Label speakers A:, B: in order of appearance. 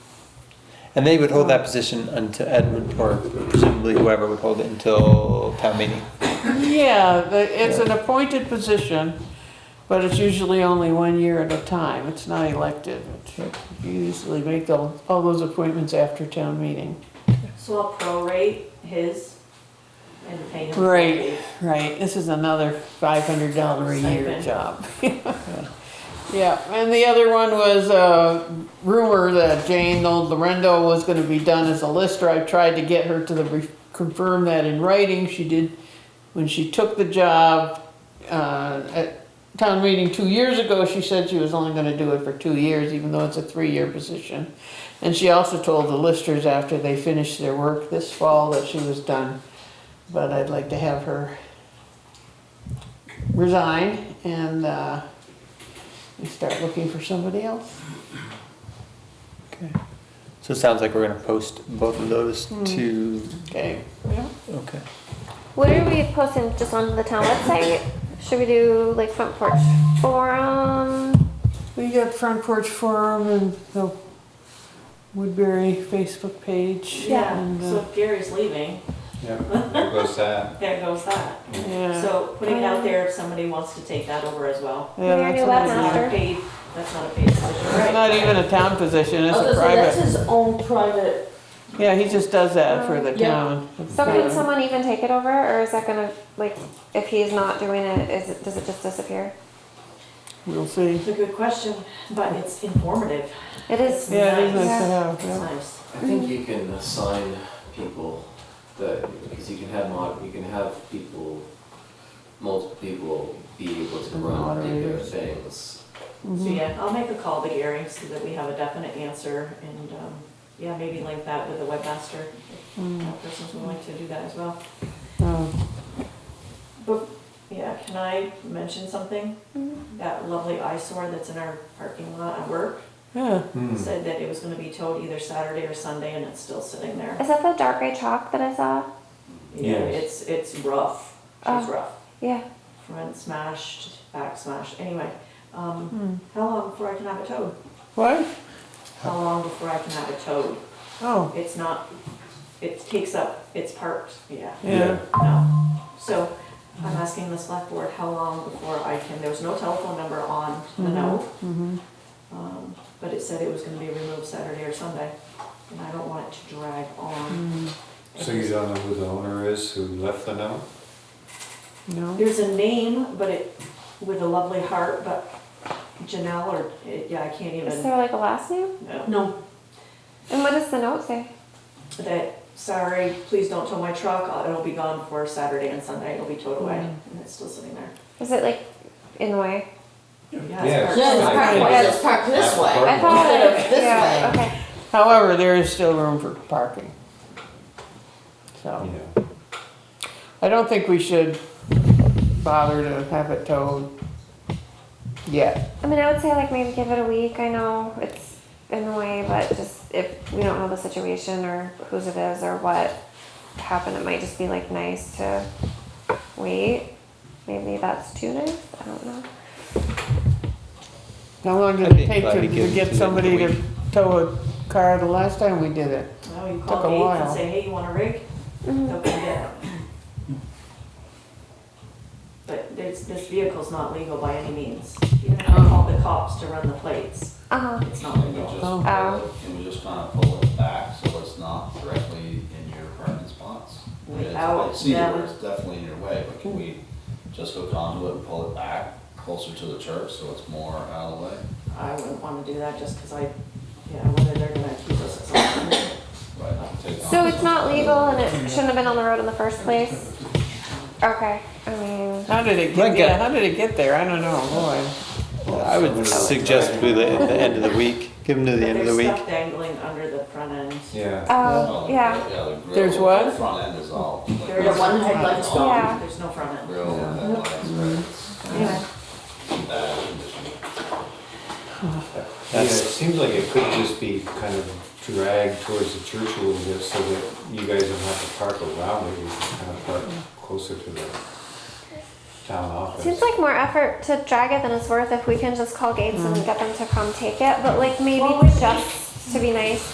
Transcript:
A: And they would hold that position until Edmund, or presumably whoever would hold it until town meeting.
B: Yeah, the- it's an appointed position, but it's usually only one year at a time. It's not elected.
A: Right.
B: You usually make all, all those appointments after town meeting.
C: So I'll prorate his and pay him.
B: Right, right. This is another five hundred dollar a year
C: Stipend.
B: job. Yeah, and the other one was a rumor that Jane Old Lorendo was gonna be done as a lister. I tried to get her to the, re- confirm that in writing. She did, when she took the job, uh, at town meeting two years ago, she said she was only gonna do it for two years, even though it's a three-year position. And she also told the listers after they finished their work this fall that she was done. But I'd like to have her resign and, uh, we start looking for somebody else.
A: Okay. Hmm. So it sounds like we're gonna post both of those to,
B: Okay, yeah.
A: okay.
D: What are we posting just on the town website? Should we do like front porch forum?
B: We got Front Porch Forum and the Woodbury Facebook page.
C: Yeah,
B: and, uh,
C: so if Gary's leaving,
E: There goes that.
C: there goes that.
B: Yeah.
C: So putting it out there if somebody wants to take that over as Oh. well.
B: Yeah,
D: We already
B: that's
D: left
C: That's
B: another-
C: not a
D: Master.
C: paid, that's not a paid position,
B: It's
C: right?
B: not even a town position, it's
F: Oh,
B: a
F: so that's
B: private.
F: his own private,
B: Yeah, he just does
C: Oh,
B: that for the
F: Yeah.
B: town. It's,
D: So can
B: uh,
D: someone even take it over or is that gonna, like, if he's not doing it, is it, does it just disappear?
B: We'll see.
C: It's a good question, but it's informative.
D: It is.
B: Yeah, it is
C: Nice.
B: nice to have,
C: It's
B: yeah.
C: nice.
G: I think you can assign people that, because you can have mod, you can have people, multiple people be able to run regular
B: Moderators.
G: things.
C: So
B: Mm-hmm.
C: yeah, I'll make a call to Gary so that we have a definite answer and, um, yeah, maybe link that with the webmaster.
B: Mm.
C: if That person's willing to do that as well.
B: Um,
C: But, yeah, can I mention something? That lovely eyesore that's in our parking lot at work
B: Yeah,
E: Hmm.
C: said that it was gonna be towed either Saturday or Sunday and it's still sitting there.
D: Is that the dark gray chalk that I saw?
C: Yeah,
G: Yes.
C: it's, it's rough. It's
D: Oh.
C: rough.
D: Yeah,
C: Front smashed, back smashed, anyway. Um, how long before I can have it towed?
B: what?
C: How long before I can have it towed?
B: Oh,
C: It's not, it takes up, it's parked, yeah,
B: yeah.
C: no. So I'm asking the select board how long before I can, there was no telephone number on the note. Um, But it said it was gonna be removed Saturday or Sunday, and I don't want it to drag on.
E: So you don't know who the owner is who left the note?
B: No,
C: There's a name, but it, with a lovely heart, but Janelle or, eh, yeah, I can't
D: is
C: even,
D: there like a last name?
C: no.
F: no,
D: And what does the note say?
C: that, sorry, please don't tow my truck, I'll- it'll be gone for Saturday and Sunday, it'll be towed away, and it's still sitting there.
D: Is it like in the way?
C: Yeah,
E: Yeah,
C: it's
F: yeah, it's
C: parked.
F: parked, yeah, it's parked this way.
D: I thought,
F: Instead of this
D: yeah,
F: way.
D: okay.
B: however, there is still room for parking. So.
E: Yeah.
B: I don't think we should bother to have it towed yet.
D: I mean, I would say like maybe give it a week. I know it's in the way, but just if we don't know the situation or whose it is or what happened, it might just be like nice to wait. Maybe that's too nice. I don't know.
B: How long
A: I'd
B: did
A: be
B: it take
A: glad
B: to
A: to give
B: to
A: it to
B: get
A: them
B: somebody
A: in a
B: to tow a car the last time we did it?
C: No, you
B: Took a
C: call Gates
B: while.
C: and say, hey, you want a rig? They'll come get it. But this, this vehicle's not legal by any means. Even if you call the cops to run the plates,
D: Uh-huh.
C: it's not
H: Can we just,
C: legal.
B: Oh.
D: Oh.
H: can we just kind of pull it back so it's not directly in your pertinent spots? I mean, it's- I
D: oh,
C: Without
H: see
C: them.
H: where it's definitely in your way, but can we just go conduit and pull it back closer to the church so it's more out of the way?
C: I wouldn't wanna do that just because I, yeah, whether they're gonna accuse us of something.
H: Right, take
D: So
H: on
D: it's
H: some-
D: not legal and it shouldn't have been on the road in the first place. Okay. I mean,
B: How did it get,
A: Like a-
B: yeah, how did it get there? I don't know, boy.
A: I would suggest we, let it at the end of the week, give them to the end of the
C: There's
A: week.
C: stuff dangling under the front end.
E: Yeah.
D: uh,
H: Oh,
D: yeah.
H: the grill,
B: There's what?
H: the Front end is all. like,
C: There
F: The
C: is
F: one
C: no
F: headlight's
C: front end.
D: gone.
C: There's no front end.
H: Grill and headlights, right, it's
C: Anyway,
H: in bad condition.
E: Yeah, it seems like it could just be kind of dragged towards the church a little bit so that you guys don't have to park around it. You can kind of park closer to the town office.
D: Seems like more effort to drag it than it's worth if we can just call Gates and get them to come take it, but like maybe
C: Well, we-
D: just to be nice,